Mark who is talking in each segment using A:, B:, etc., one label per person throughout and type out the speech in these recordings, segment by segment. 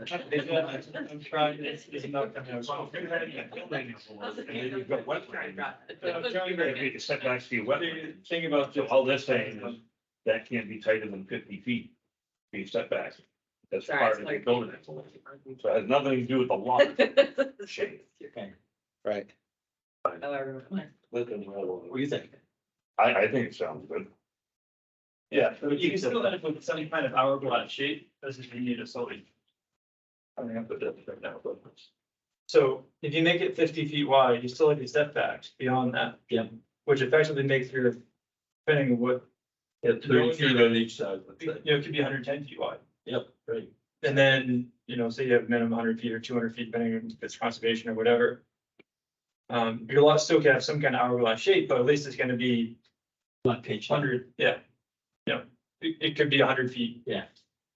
A: I'm trying, it's, it's not.
B: I'm trying to make a setback to your
A: The
B: wetland.
A: thing about.
B: So all they're saying is that can't be tighter than fifty feet, be setback. That's part of the building. So it has nothing to do with the lot shape.
C: Right.
A: What do you think?
B: I, I think it sounds good.
A: Yeah, but you can still end up with some kind of hourglass shape, doesn't mean you need a solid. I mean, I put that right now, but. So if you make it fifty feet wide, you still have your setbacks beyond that.
D: Yeah.
A: Which effectively makes your, depending on what,
D: Thirty feet on each side. let's
A: you know,
D: say.
A: it could be hundred ten feet wide.
D: Yep, right.
A: And then, you know, say you have minimum hundred feet or two hundred feet, depending on if it's conservation or whatever. Um, your lot still can have some kind of hourglass shape, but at least it's gonna be
D: Not pitch.
A: hundred, yeah. You know, it, it could be hundred feet.
D: Yeah.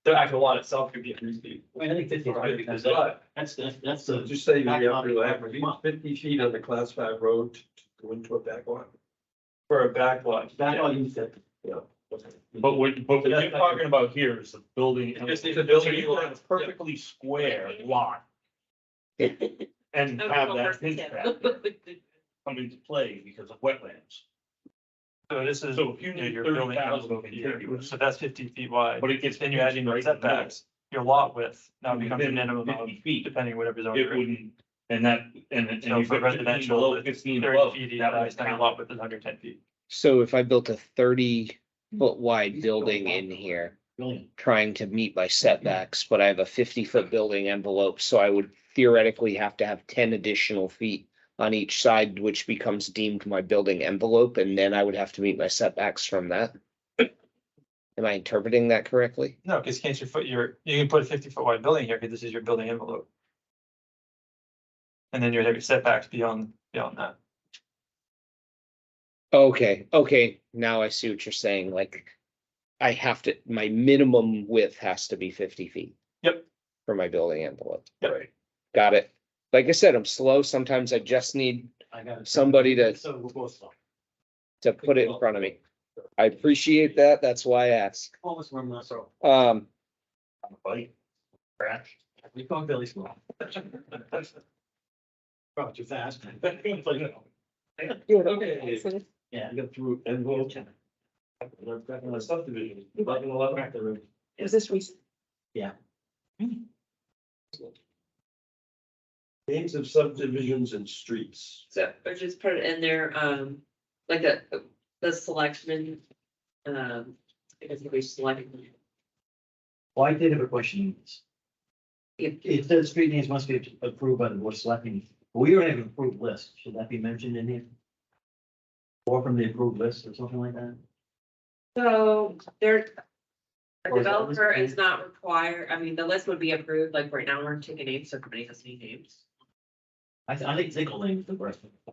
A: The actual lot itself could be hundred feet.
D: I mean, I think fifty is good because that-
A: But
D: that's, that's, that's
E: So
D: the.
E: just say you have
D: Back lot is
E: to
D: whatever
E: have
D: you want.
E: fifty feet on the class five road to go into a back lot.
A: for a back lot.
D: That
A: yeah.
D: all you said.
E: Yeah.
B: But what, but what you're talking about here is the building.
A: It's just the building.
B: So you can have a Perfectly square lot. And have that pitch back come into play because of wetlands.
A: So this is,
B: So if you
A: you know,
B: need
A: you're
B: thirty
A: building houses
B: thousand
A: over here,
B: contiguous,
A: so that's fifty feet wide.
B: but it gets.
A: Then you add in your
B: right in the middle,
A: setbacks, your lot width now becomes a
B: within
A: minimum of,
B: 50 feet,
A: depending whatever zone
B: It
A: you're in.
B: wouldn't, and that, and. and
A: So
B: you
A: for
B: put 15
A: residential,
B: below,
A: it's
B: Fifteen
A: Thirty
B: above,
A: feet,
B: that would
A: that's not your
B: count.
A: lot width is under ten feet.
C: So if I built a thirty foot wide building in here,
D: Brilliant.
C: trying to meet my setbacks, but I have a fifty foot building envelope, so I would theoretically have to have ten additional feet on each side, which becomes deemed my building envelope, and then I would have to meet my setbacks from that. Am I interpreting that correctly?
A: No, because can't you foot your, you can put a fifty foot wide building here, because this is your building envelope. And then you would have your setbacks beyond, beyond that.
C: Okay, okay, now I see what you're saying, like, I have to, my minimum width has to be fifty feet.
A: Yep.
C: For my building envelope.
A: Yep.
C: Right. Got it. Like I said, I'm slow. Sometimes I just need
D: I got it.
C: somebody to,
D: So we'll both stop.
C: to put it in front of me. I appreciate that. That's why I ask.
D: What was one last row?
C: Um,
B: Bike, crash.
D: We call Billy Small. Probably too fast.
A: Okay.
D: Yeah, I got through envelope. I've got another subdivision, but in eleven at the room.
F: Is this recent?
E: Names of subdivisions and streets.
F: So, or just put it in there, um, like a, the selectmen, um, because we select.
D: Well, I did have a question. It, it says street names must be approved by the board of selectmen. We don't have an approved list. Should that be mentioned in here? Or from the approved list or something like that?
F: So there. A
D: Or is that
F: developer
D: listed?
F: is not required, I mean, the list would be approved, like right now, we're taking names, so everybody has new names.
D: I, th- I think Ziggle name is the worst.
F: I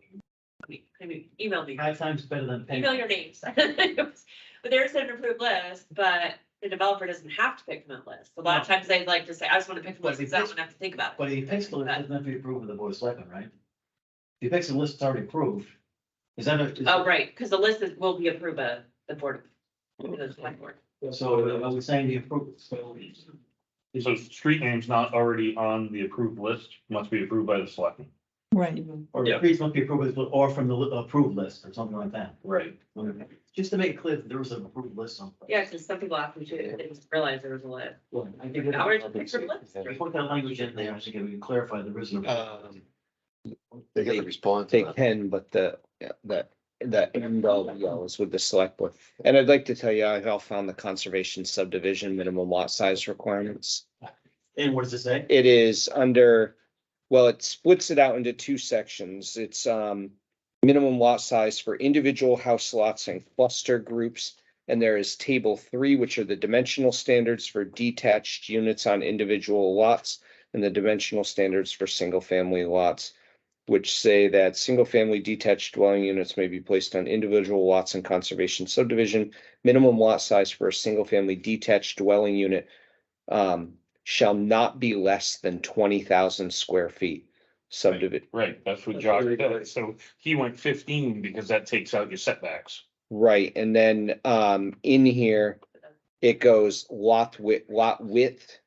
F: mean, I mean, email me,
D: Five times better than. Peg.
F: email your names. But there's an approved list, but the developer doesn't have to pick from that list. A lot of times they like to say, I just want to pick from
D: But
F: list,
D: if
F: because I
D: this-
F: don't have to think about it.
D: But he picks the list, doesn't have to be approved by the board of selectmen, right? He picks the list that's already approved. Is that a? is-
F: Oh, right, because the list is, will be approved by the board, of the select board.
D: So uh, are we saying the approved? So
B: So street names not already on the approved list must be approved by the selectmen.
G: Right.
D: Or
A: Yeah.
D: streets must be approved, with- or from the li- approved list or something like that.
B: Right.
D: Okay. Just to make it clear that there was an approved list somewhere.
F: Yeah, because some people after too, they just realize there was a list.
D: I think that-
F: Ours is from list.
D: We put that language in there, I think it would clarify there is an. approved list.
C: um,
E: They
C: gotta
E: respond
C: they can, but the, yeah, that, that end all be all is with the select board. And I'd like to tell you, I've all found the conservation subdivision minimum lot size requirements.
D: And what does it say?
C: It is under, well, it splits it out into two sections. It's um. Minimum lot size for individual house lots and cluster groups. And there is table three, which are the dimensional standards for detached units on individual lots. And the dimensional standards for single family lots. Which say that single family detached dwelling units may be placed on individual lots in conservation subdivision. Minimum lot size for a single family detached dwelling unit. Um, shall not be less than twenty thousand square feet subdivision,
B: Right, that's what Josh said. So he went fifteen because that takes out your setbacks.
C: right, and then, um, in here. It goes lot width, lot width